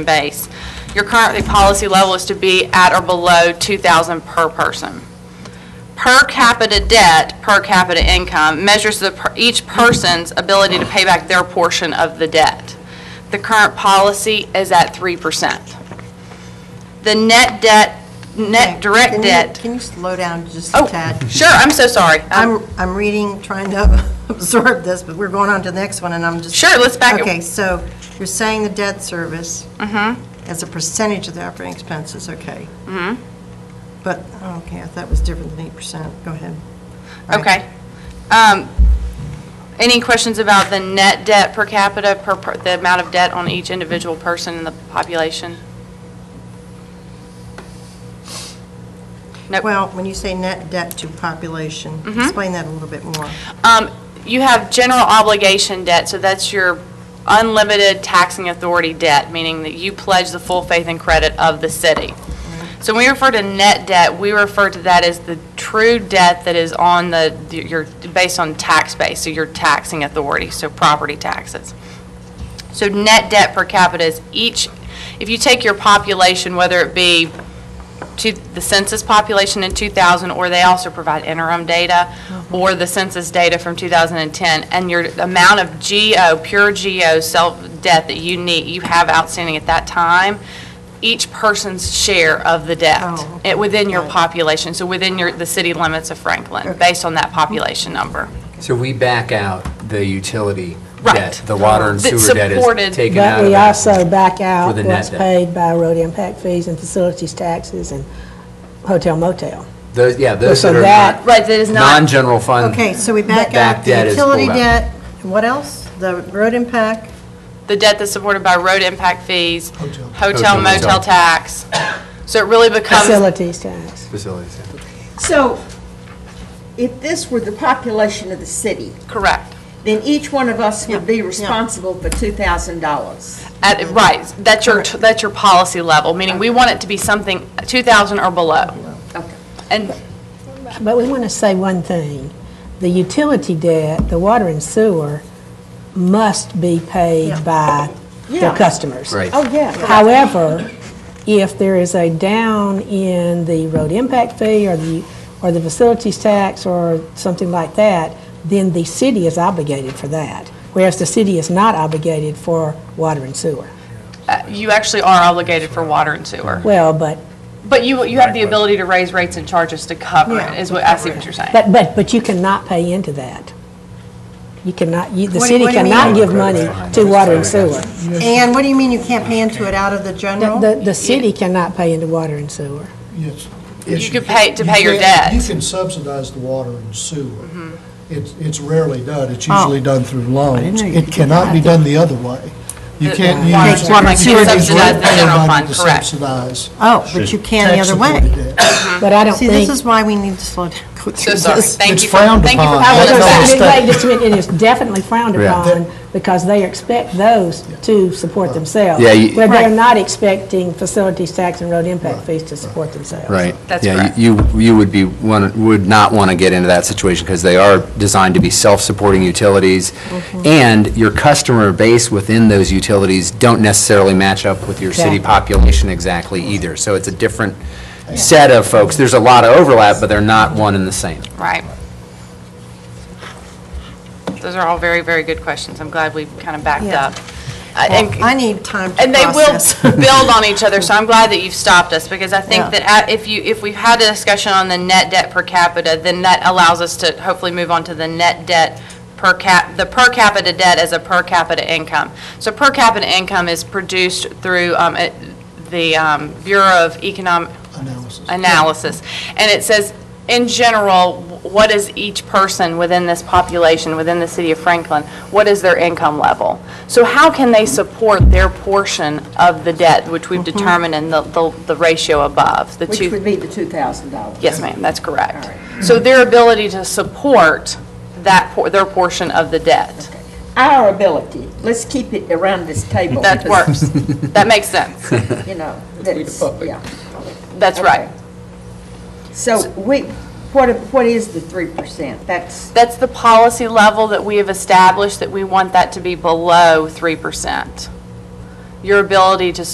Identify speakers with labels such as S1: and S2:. S1: base. Your currently policy level is to be at or below 2,000 per person. Per capita debt, per capita income measures the, per- each person's ability to pay back their portion of the debt. The current policy is at 3%. The net debt,
S2: Okay,
S1: net direct
S2: can you-
S1: debt,
S2: Can you slow down just a
S1: oh,
S2: tad?
S1: sure, I'm so sorry. Um,
S2: I'm, I'm reading, trying to absorb this, but we're going on to the next one, and I'm just.
S1: Sure, let's back it-
S2: Okay, so you're saying the debt service
S1: Mm-hmm.
S2: as a percentage of the operating expenses, okay. Mm-hmm. But, okay, I thought it was different than 8%. Go ahead. All right.
S1: Okay. Um, Any questions about the net debt per capita, per, per- the amount of debt on each individual person in the population? Nope. Mm-hmm.
S2: Well, when you say net debt to population, explain that a little bit more.
S3: Mm-hmm.
S1: Um, You have general obligation debt, so that's your unlimited taxing authority debt, meaning that you pledge the full faith and credit of the city. So when we refer to net debt, we refer to that as the true debt that is on the, your, based on tax base, so your taxing authority, so property taxes. So net debt per capita is each, if you take your population, whether it be to the census population in 2000, or they also provide interim data, or the census data from 2010, and your amount of GO, pure GO self-debt that you need, you have outstanding at that time, each person's share of the debt
S2: Oh,
S1: eh, within your
S2: got it.
S1: population, so within your, the city limits of Franklin,
S2: Okay.
S1: based on that population number.
S3: So we back out the utility
S1: Right.
S3: debt, the water and
S1: That
S3: sewer debt
S1: supported-
S3: is taken out
S4: But
S3: of
S4: we
S3: that.
S4: also back out
S3: the net
S4: what's
S3: debt.
S4: paid by road impact fees and facilities taxes and hotel motel.
S3: Those, yeah, those
S4: So
S3: that are
S4: that-
S3: not-
S1: Right, that is not,
S3: non-general fund.
S2: Okay, so we back
S3: Back
S2: out the
S3: debt is pulled
S2: utility
S3: out.
S2: debt, what else? The road impact?
S1: the debt that's supported by road impact fees,
S3: Hotel,
S1: hotel
S3: motel.
S1: motel tax. So it really becomes,
S4: Facilities tax.
S3: Facilities, yeah.
S5: So if this were the population of the city,
S1: correct.
S5: then each one of us would be responsible for $2,000.
S1: At, right, that's your, that's your policy level, meaning we want it to be something 2,000 or below.
S5: Okay.
S1: And,
S4: But we want to say one thing. The utility debt, the water and sewer, must be paid by their
S5: Yeah.
S4: customers.
S3: Right.
S5: Oh, yeah.
S4: However, if there is a down in the road impact fee or the, or the facilities tax or something like that, then the city is obligated for that, whereas the city is not obligated for water and sewer.
S1: uh, you actually are obligated for water and sewer.
S4: Well, but,
S1: But you, you have the ability to raise rates and charges to cover it,
S2: Yeah.
S1: is what, I see what you're saying.
S4: but, but, but you cannot pay into that. You cannot, you, the
S2: What do you-
S4: city
S2: what do you mean?
S4: cannot give money to water and sewer.
S2: And what do you mean you can't pay into it out of the general?
S4: The, the city cannot pay into water and sewer.
S6: Yes.
S1: You could pay, to pay your debt. Mm-hmm.
S6: You can subsidize the water and sewer. It's it's rarely done, it's usually done through loans.
S2: Oh. know you could
S6: It cannot be done the other way. You
S1: The-
S6: can't
S1: the
S6: use.
S1: water and sewer,
S6: you
S1: like
S6: can't
S1: you
S6: use
S1: subsidize the
S6: ratepayer
S1: general
S6: money
S1: fund,
S6: to
S1: correct.
S6: Subsidize.
S2: Oh, but you can the other
S6: tax-supported
S2: way.
S6: debt.
S4: But I don't
S2: See,
S4: think.
S2: this is why we need to slow down. go
S1: So
S2: through
S1: sorry,
S2: this.
S1: thank
S6: It's
S1: you for,
S6: frowned
S1: thank you for
S6: upon.
S4: I
S1: having
S4: was
S6: That's
S1: us
S4: gonna
S6: not a
S4: say,
S1: back.
S6: mistake.
S4: wait, just a minute, it is definitely frowned
S3: Yeah.
S4: upon, because they expect those to support themselves.
S3: Yeah, you-
S4: Where they're
S2: Right.
S4: not expecting facilities tax and road impact fees to support themselves.
S3: Right.
S1: That's
S3: Yeah,
S1: correct.
S3: You, you would be, one- would not want to get into that situation because they are designed to be self-supporting utilities.
S1: Mm-hmm.
S3: And your customer base within those utilities don't necessarily match up with your city
S4: Exactly.
S3: population exactly either. So it's a different set of folks. There's a lot of overlap, but they're not one and the same.
S1: Right. Those are all very, very good questions. I'm glad we kind of backed
S2: Yeah.
S1: up. I- and-
S2: I need time to
S1: And they will
S2: process.
S1: build on each other, so I'm glad that you've stopped us, because I think
S2: Yeah.
S1: that a- if you, if we've had a discussion on the net debt per capita, then that allows us to hopefully move on to the net debt per cap, the per capita debt as a per capita income. So per capita income is produced through um, it- the um, Bureau of Economic,
S6: Analysis.
S1: analysis. And it says, in general, what is each person within this population, within the city of Franklin, what is their income level? So how can they support their portion of the debt, which we've determined in the, the the ratio above? the two.
S5: Mm-hmm. Which would be the $2,000.
S1: Yes, ma'am, that's correct.
S5: All
S1: So their ability to support that, por- their portion of the debt.
S5: Our ability, let's keep it around this table.
S1: That works.
S5: because,
S1: That makes sense.
S5: You know, that's, yeah.
S1: That's right.
S5: So we, what, what is the 3%? That's,
S1: That's the policy level that we have established, that we want that to be below 3%. Your ability to